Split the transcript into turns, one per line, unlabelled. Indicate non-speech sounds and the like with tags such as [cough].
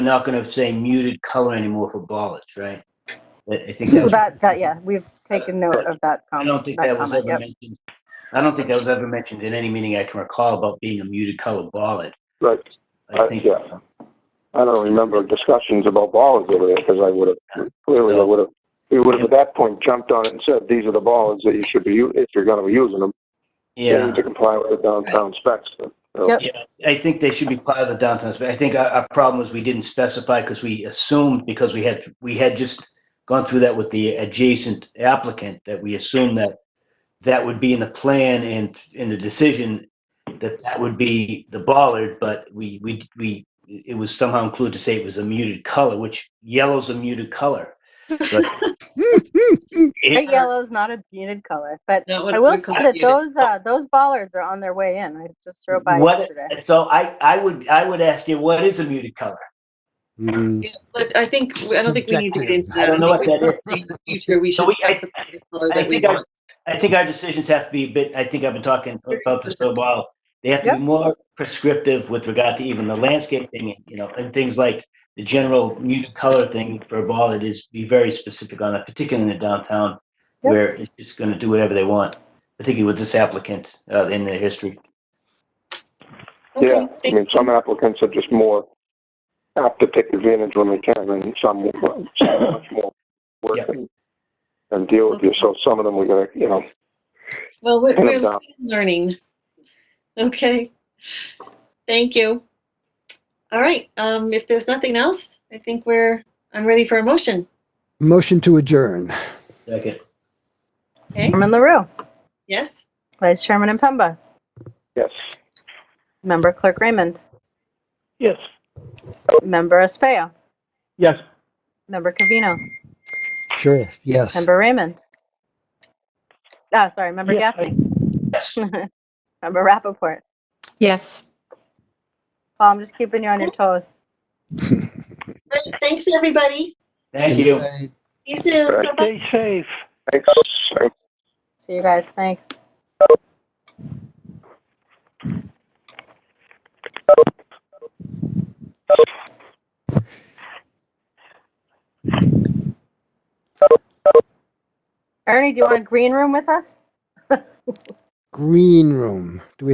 not going to say muted color anymore for ballards, right? I I think that's,
That, that, yeah, we've taken note of that.
I
com-
don't think that was
comment,
ever
yep.
mentioned. I don't think that was ever mentioned in any meeting I can recall about being a muted color ballad.
Right.
I
Uh,
think,
yeah. I don't remember discussions about ballards over there because I would have, clearly I would have, we would have at that point jumped on it and said, these are the ballards that you should be, u- if you're going to be using them. you need
yeah,
To comply with the downtown specs. So,
Yep.
I think they should be part of the downtown, but I think our, our problem was we didn't specify because we assumed, because we had, we had just gone through that with the adjacent applicant, that we assumed that that would be in the plan and in the decision, that that would be the bollard, but we, we, we, it was somehow included to say it was a muted color, which yellow's a muted color. but-
Bright yellow is not a muted color, but
Not what
I will
we
say
call
that
it.
those, uh, those bollards are on their way in. I just drove by
What-
yesterday.
So I, I would, I would ask you, what is a muted color?
Mm,
Yeah, But I think, I don't think we need to get into
I
that.
don't know what
think
that
we- In the future, we
So
should
we- I-
specify the color
I
that we
think I-
want.
I think our decisions have to be a bit, I think I've been talking
Very
about this for a
specific.
while. They have to
Yeah.
be more prescriptive with regard to even the landscaping, you know, and things like the general muted color thing for a ball, it is be very specific on it, particularly in the downtown,
Yeah.
where it's just gonna do whatever they want, particularly with this applicant, uh, in their history.
Yeah,
Okay,
I
thank
mean, some applicants are just more apt to take advantage when they can and some, some are much more work
Yeah.
and- and deal with you. So some of them we gotta, you know,
Well, we're,
Kind of
we're
dumb.
learning. Okay. Thank you. All right, um, if there's nothing else, I think we're, I'm ready for a motion.
Motion to adjourn.
Second,
Okay,
Chairman LaRue,
yes?
Vice Chairman Impemba,
yes.
Member Clerk Raymond,
Yes.
Member Españo,
Yes.
Member Cavino,
Sheriff, yes.
Member Raymond. Ah, sorry, Member Gaffney.
yes.
[laughs] Member Rappaport.
Yes.
Paul, I'm just keeping you on your toes.
Thanks, everybody.
Thank you.
See you soon.
Right.
Bye-bye.
safe. Thanks.
See you guys. Thanks. Ernie, do you want a green room with us?
Green room. Do we